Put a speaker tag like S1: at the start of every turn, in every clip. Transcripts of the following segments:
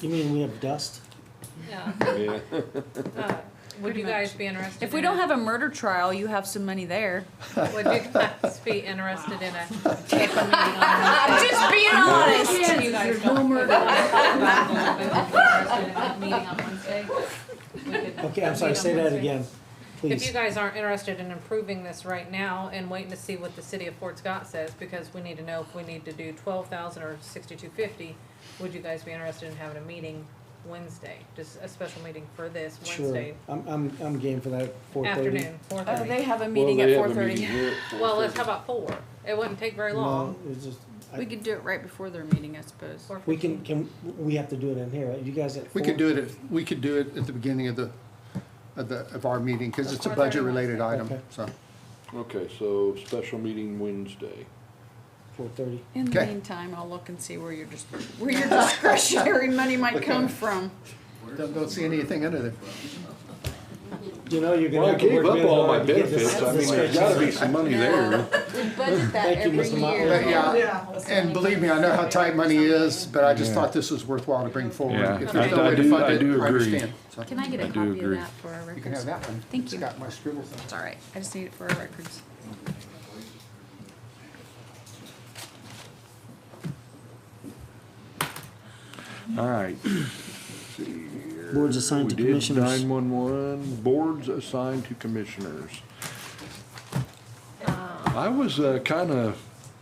S1: You mean we have dust?
S2: Yeah.
S3: Yeah.
S2: Uh, Would
S4: Pretty
S2: you guys be interested?
S4: If we
S2: in
S4: don't
S2: a-
S4: have a murder trial, you have some money there.
S2: Would you guys be interested in a?
S4: I'm just being honest.
S2: You guys don't- Would you guys be interested in a Meeting on Wednesday? We could-
S1: Okay, I'm
S2: a
S1: sorry,
S2: meeting
S1: say
S2: on
S1: that
S2: Wednesday.
S1: again,
S2: If you
S1: please.
S2: guys aren't interested in improving this right now and waiting to see what the city of Fort Scott says, because we need to know if we need to do twelve thousand or sixty-two fifty, would you guys be interested in having a meeting Wednesday? Just a special meeting for this
S1: Sure,
S2: Wednesday
S1: I'm, I'm, I'm game for that, four thirty.
S2: afternoon, four
S4: Oh,
S2: thirty.
S4: they have a
S3: Well,
S4: meeting
S3: they
S4: at
S3: have a
S4: four thirty.
S3: meeting here at
S2: Well, let's, how
S3: 4:30.
S2: about four? It wouldn't take very long.
S1: No, it's just, I-
S4: We could do it right before their meeting, I suppose.
S2: Four
S1: we can,
S2: fifteen.
S1: can, we have to do it in here, right? you guys at four?
S5: We could do it, at- we could do it at the beginning of the, of the, of our meeting, because it's a budget-related item, so.
S3: Okay, so special meeting Wednesday.
S1: Four thirty.
S4: In the
S5: Okay.
S4: meantime, I'll look and see where your, dis- where your discretionary money might come from.
S5: Don't, don't see anything under there.
S1: You know, you're gonna
S3: Well, I
S1: have to
S3: gave
S1: work
S3: up
S1: really
S3: all my
S1: hard to get this.
S3: benefits, I mean, there's gotta be some money there.
S6: We budget that
S1: Thank you,
S6: every
S1: Mr. Motley.
S6: year.
S5: But yeah, and believe me, I know how tight money is, but I just thought this was worthwhile to bring forward.
S3: Yeah,
S5: If
S3: I-
S5: there's no
S3: I
S5: way to
S3: do-
S5: fund
S3: I
S5: it,
S3: do
S5: I
S3: agree.
S5: understand. So,
S4: Can I get a
S3: I do
S4: copy of
S3: agree.
S4: that for our records?
S5: You can have that one.
S4: Thank you.
S5: It's got my scribbles on it.
S4: It's all right. I just need it for our records.
S3: All right.
S1: Boards assigned to commissioners.
S3: Nine one one, boards assigned to commissioners. I was, uh, kinda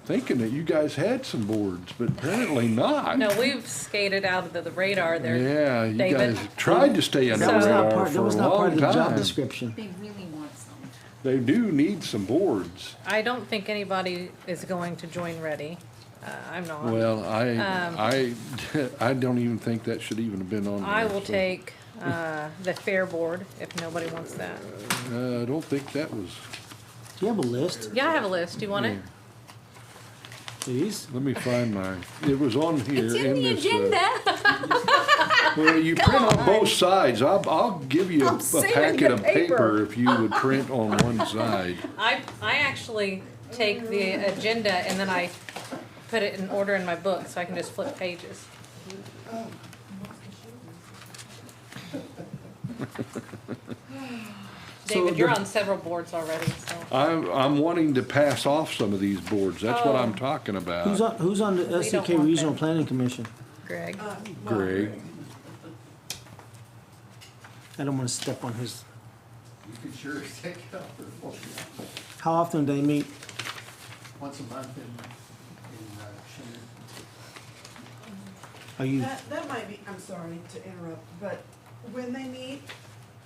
S3: thinking that you guys had some boards, but apparently not.
S2: No, we've skated out of the- the radar there.
S3: Yeah, you
S2: David.
S3: guys tried to stay under
S2: That
S3: the
S2: was not
S3: radar
S1: That
S3: for a
S1: was not part
S3: long
S1: of the job
S3: time.
S1: description.
S6: They really want some.
S3: They do need some boards.
S2: I don't think anybody is going to join Ready. Uh, I'm not.
S3: Well, I,
S4: Um,
S3: I, I don't even think that should even have been on there.
S2: I will
S3: so,
S2: take uh, the Fair Board if nobody wants that.
S3: Uh, I don't think that was,
S1: Do you have a list,
S2: Yeah, I have a list. Do you want it?
S1: please?
S3: let me find mine. It was on here
S4: It's
S3: in
S4: in the
S3: this. uh,
S4: agenda.
S3: Well, you print on both sides. I'll, I'll give you a
S4: I'm
S3: a
S4: saving
S3: packet
S4: the
S3: of
S4: paper.
S3: paper if you would print on one side.
S2: I, I actually take the agenda and then I put it in order in my book so I can just flip pages. David, you're on several boards already, so
S3: I'm, I'm wanting to pass off some of these boards. That's what
S4: Oh.
S3: I'm talking
S1: Who's
S3: about,
S1: on, who's on the
S2: don't
S1: SDK
S2: want
S1: Regional
S2: that.
S1: Planning Commission?
S2: Greg.
S3: Greg.
S1: I don't wanna step on his,
S5: You can sure take it out for
S1: how often do they meet?
S5: once a month in, in, uh, Shannon.
S1: Are you,
S7: That, that might be, I'm sorry to interrupt, but when they meet,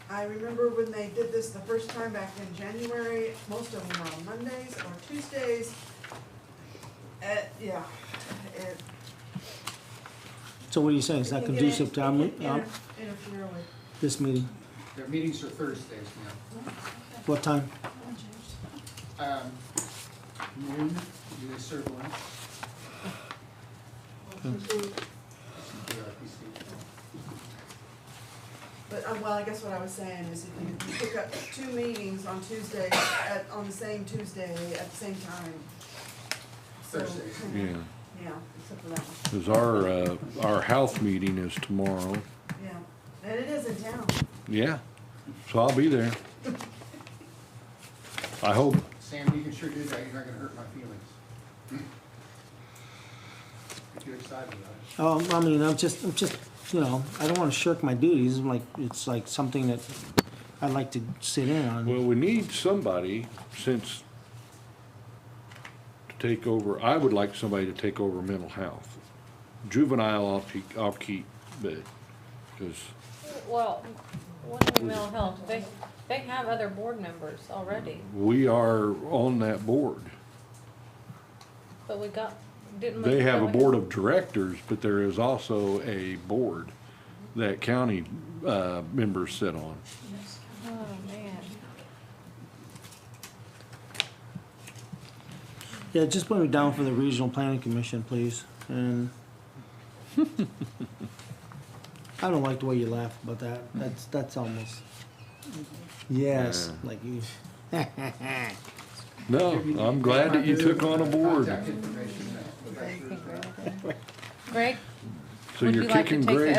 S7: I remember when they did this the first time back in January, most of them were on Mondays or Tuesdays. Uh, yeah, it.
S1: so what are you saying, it's not
S7: it can
S1: conducive to,
S7: inter-
S1: our
S7: it
S1: meet-
S7: can
S1: our-
S7: inter- Interfere with.
S1: this meeting?
S5: Their meetings are Thursdays now.
S1: What time?
S5: Um, noon, you guys serve lunch?
S7: But, uh, well, I guess what I was saying is if you you pick up two meetings on Tuesday, at, on the same Tuesday at the same time. So,
S5: Thursdays.
S3: Yeah,
S7: Yeah, except for that one,
S3: cause our, uh, our health meeting is tomorrow.
S7: yeah. And it is in town.
S3: Yeah, so I'll be there. I hope.
S5: Sam, you can sure do that, you're not gonna hurt my feelings. If you're excited about it.
S1: Um, I mean, I'm just, I'm just, you know, I don't wanna shirk my duties, I'm like, it's like something that I'd like to sit in on.
S3: Well, we need somebody since to take over, I would like somebody to take over mental health. Juvenile off, keep- off keep, but, cause,
S2: Well, what do mental health? They, they have other board members already,
S3: we are on that board.
S2: but we got, didn't. we-
S3: They have a board of directors, but there is also a board that county, uh, members sit on.
S2: Oh, man.
S1: Yeah, just put me down for the Regional Planning Commission, please, and. I don't like the way you laugh about that, that's, that's almost, yes,
S3: Yeah.
S1: like you,
S3: No, I'm glad that you took on a board.
S5: Contact information.
S2: Greg?
S3: So
S2: Would
S3: you're
S2: you like to
S3: kicking
S2: take the
S3: Greg